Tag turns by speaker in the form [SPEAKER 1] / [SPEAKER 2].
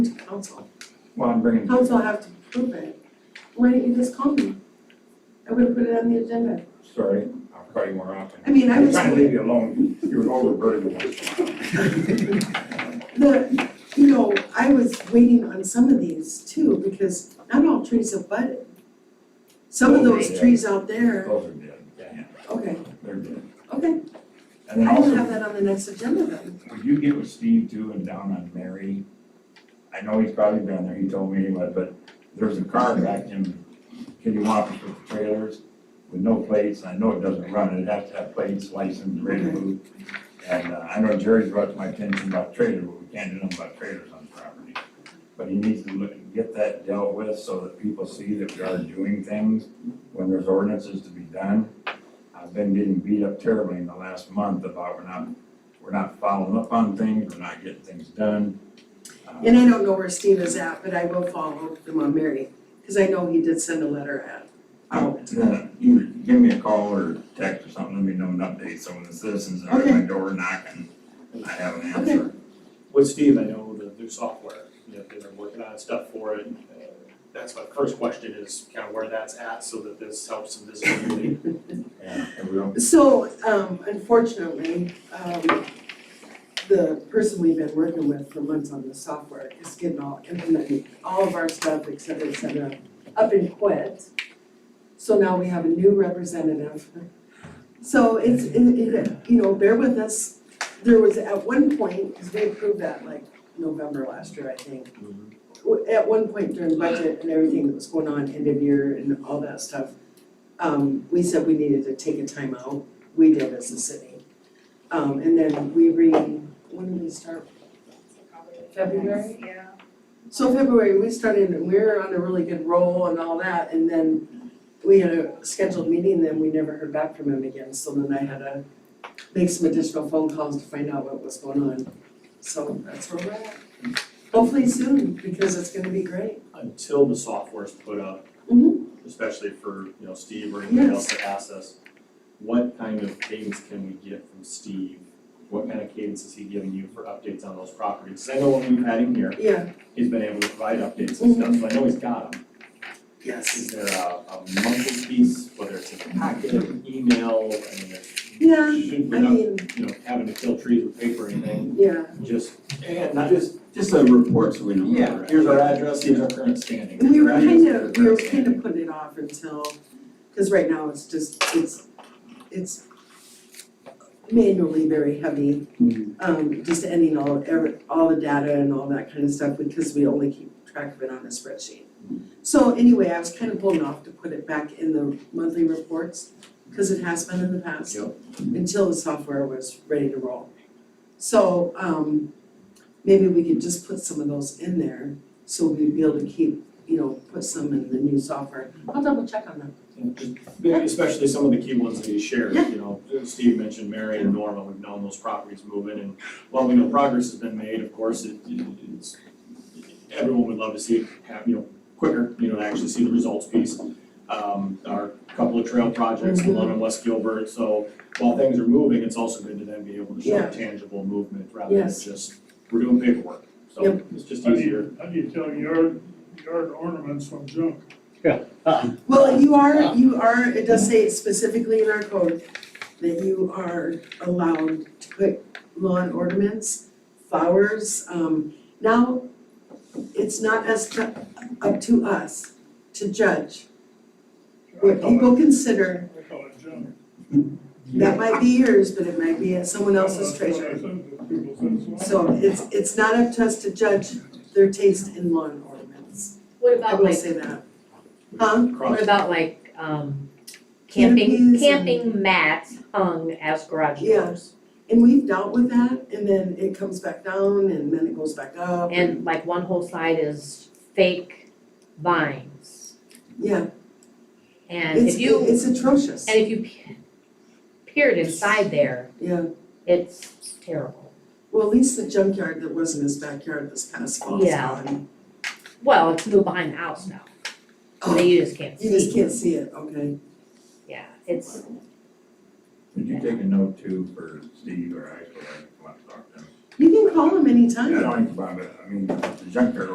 [SPEAKER 1] to council.
[SPEAKER 2] Well, I'm bringing,
[SPEAKER 1] Council have to prove it. Why didn't you just call me? I would have put it on the agenda.
[SPEAKER 2] sorry, I'll call you more often.
[SPEAKER 1] I mean, I
[SPEAKER 2] I'm
[SPEAKER 1] was,
[SPEAKER 2] trying to
[SPEAKER 1] the,
[SPEAKER 2] leave you alone, you're overburdened once in a while.
[SPEAKER 1] you know, I was waiting on some of these too, because not all trees have budded. Some of those trees out there,
[SPEAKER 2] Those are dead, yeah,
[SPEAKER 1] okay,
[SPEAKER 2] they're dead.
[SPEAKER 1] okay,
[SPEAKER 2] And
[SPEAKER 1] I will
[SPEAKER 2] then
[SPEAKER 1] have
[SPEAKER 2] also,
[SPEAKER 1] that on the next agenda then.
[SPEAKER 2] would you get with Steve too and down on Mary? I know he's probably been there, he told me anyway, but there's a car back in Kittywampus with the trailers with no plates, I know it doesn't run, it has to have plates, license, ready to move. And uh, I know Jerry's brought to my attention about trailers, but we can't do nothing about trailers on property. But he needs to look, get that dealt with so that people see that we are doing things when there's ordinances to be done. I've been getting beat up terribly in the last month about we're not, we're not following up on things, we're not getting things done. Uh,
[SPEAKER 1] And I don't know where Steve is at, but I will follow him on Mary, because I know he did send a letter out.
[SPEAKER 2] I'll- uh, You give me a call or text or something, let me know an update, so when the citizens are at my door knocking, I have an answer.
[SPEAKER 3] With Steve, I know the new software, you know, they're working on stuff for it. Uh, That's my first question is kind of where that's at so that this helps some visibility.
[SPEAKER 2] Yeah, and we don't,
[SPEAKER 1] So, um, unfortunately, um, the person we've been working with for months on the software is getting all, implementing all of our stuff, et cetera, et cetera, up and quit. So now we have a new representative. So it's, it, it, you know, bear with us. There was at one point, because we approved that like November last year, I think. w- at one point during budget and everything that was going on, end of year and all that stuff, um, we said we needed to take a timeout, we did as a city. Um, and then we re, when did we start? February?
[SPEAKER 4] Yeah.
[SPEAKER 1] So February, we started and we were on a really good roll and all that, and then we had a scheduled meeting, then we never heard back from him again, so then I had to make some additional phone calls to find out what was going on. So that's where we're at. Hopefully soon, because it's gonna be great.
[SPEAKER 3] Until the software's put up,
[SPEAKER 1] Mhm.
[SPEAKER 3] especially for, you know, Steve or anyone else
[SPEAKER 1] Yes.
[SPEAKER 3] to ask us, what kind of cadence can we get from Steve? What kind of cadence is he giving you for updates on those properties? 'Cause I know when we've had him here,
[SPEAKER 1] Yeah,
[SPEAKER 3] he's been able to provide updates and stuff, so I know he's got them.
[SPEAKER 1] yes.
[SPEAKER 3] Is there a, a monthly piece, whether it's in a packet, an email, I mean, there's,
[SPEAKER 1] Yeah,
[SPEAKER 3] should,
[SPEAKER 1] I
[SPEAKER 3] we're not,
[SPEAKER 1] mean,
[SPEAKER 3] you know, having to kill trees with paper or anything,
[SPEAKER 1] yeah,
[SPEAKER 3] just, and not
[SPEAKER 5] Not
[SPEAKER 3] just,
[SPEAKER 5] just, just a report so we know. where we're
[SPEAKER 3] yeah,
[SPEAKER 5] at.
[SPEAKER 3] here's our address, here's our current standing.
[SPEAKER 1] we were
[SPEAKER 3] Right?
[SPEAKER 1] kind of, we were kind of putting it off until, cause right now it's just, it's, it's manually very heavy,
[SPEAKER 3] Mm-hmm.
[SPEAKER 5] Mhm.
[SPEAKER 1] um, just ending all, every, all the data and all that kind of stuff, because we only keep track of it on a spreadsheet.
[SPEAKER 3] Mm-hmm.
[SPEAKER 1] So anyway, I was kind of blown off to put it back in the monthly reports, cause it has been in the past.
[SPEAKER 3] Yep. Mm-hmm.
[SPEAKER 1] Until the software was ready to roll. So, um, maybe we could just put some of those in there, so we'd be able to keep, you know, put some in the new software. I'll double check on that.
[SPEAKER 3] And just- maybe Especially some of the key ones that he shared, you know, Steve mentioned Mary and Norma, we've known those properties moving, and while we know progress has been made, of course, it, it's, everyone would love to see it have, you know, quicker, you know, to actually see the results piece. Um, our couple of trail projects, the one
[SPEAKER 1] Mm-hmm.
[SPEAKER 3] in West Gilbert, so while things are moving, it's also good to then be able to show
[SPEAKER 1] Yeah.
[SPEAKER 3] tangible movement rather than
[SPEAKER 1] Yes.
[SPEAKER 3] just, we're doing paperwork. So
[SPEAKER 1] Yep.
[SPEAKER 3] it's just
[SPEAKER 6] How do
[SPEAKER 3] easier.
[SPEAKER 6] you, how do you tell yard, yard ornaments from junk?
[SPEAKER 1] Well, you are, you are, it does say specifically in our code that you are allowed to put lawn ornaments, flowers, um, now it's not as cu- up to us to judge
[SPEAKER 6] I
[SPEAKER 1] what
[SPEAKER 6] call
[SPEAKER 1] people consider,
[SPEAKER 6] it, I call it junk.
[SPEAKER 1] that might be yours, but it might be at someone else's
[SPEAKER 6] That's what I
[SPEAKER 1] treasure.
[SPEAKER 6] said, that people said it's junk.
[SPEAKER 1] So it's, it's not up to us to judge their taste in lawn ornaments,
[SPEAKER 4] What
[SPEAKER 1] I
[SPEAKER 4] about
[SPEAKER 1] will
[SPEAKER 4] like,
[SPEAKER 1] say that. Huh?
[SPEAKER 3] Cross-
[SPEAKER 4] what about like, um, camping,
[SPEAKER 1] Canopies and-
[SPEAKER 4] camping mats hung as garage
[SPEAKER 1] Yeah.
[SPEAKER 4] doors?
[SPEAKER 1] And we've dealt with that, and then it comes back down, and then it goes back up.
[SPEAKER 4] And like one whole side is fake vines.
[SPEAKER 1] Yeah,
[SPEAKER 4] And
[SPEAKER 1] it's,
[SPEAKER 4] if you,
[SPEAKER 1] it's atrocious,
[SPEAKER 4] and if you pe- peered inside there,
[SPEAKER 1] yeah.
[SPEAKER 4] it's terrible.
[SPEAKER 1] Well, at least the junkyard that was in his backyard this past fall is
[SPEAKER 4] Yeah.
[SPEAKER 1] gone.
[SPEAKER 4] Well, it's moved behind the house now, so
[SPEAKER 1] Oh,
[SPEAKER 4] you just can't see.
[SPEAKER 1] You just can't see it, okay.
[SPEAKER 4] Yeah, it's,
[SPEAKER 2] Did you take a note too for Steve or I, so I can come up and talk to him?
[SPEAKER 1] You can call him anytime.
[SPEAKER 2] I don't think about it, I mean, the junkyard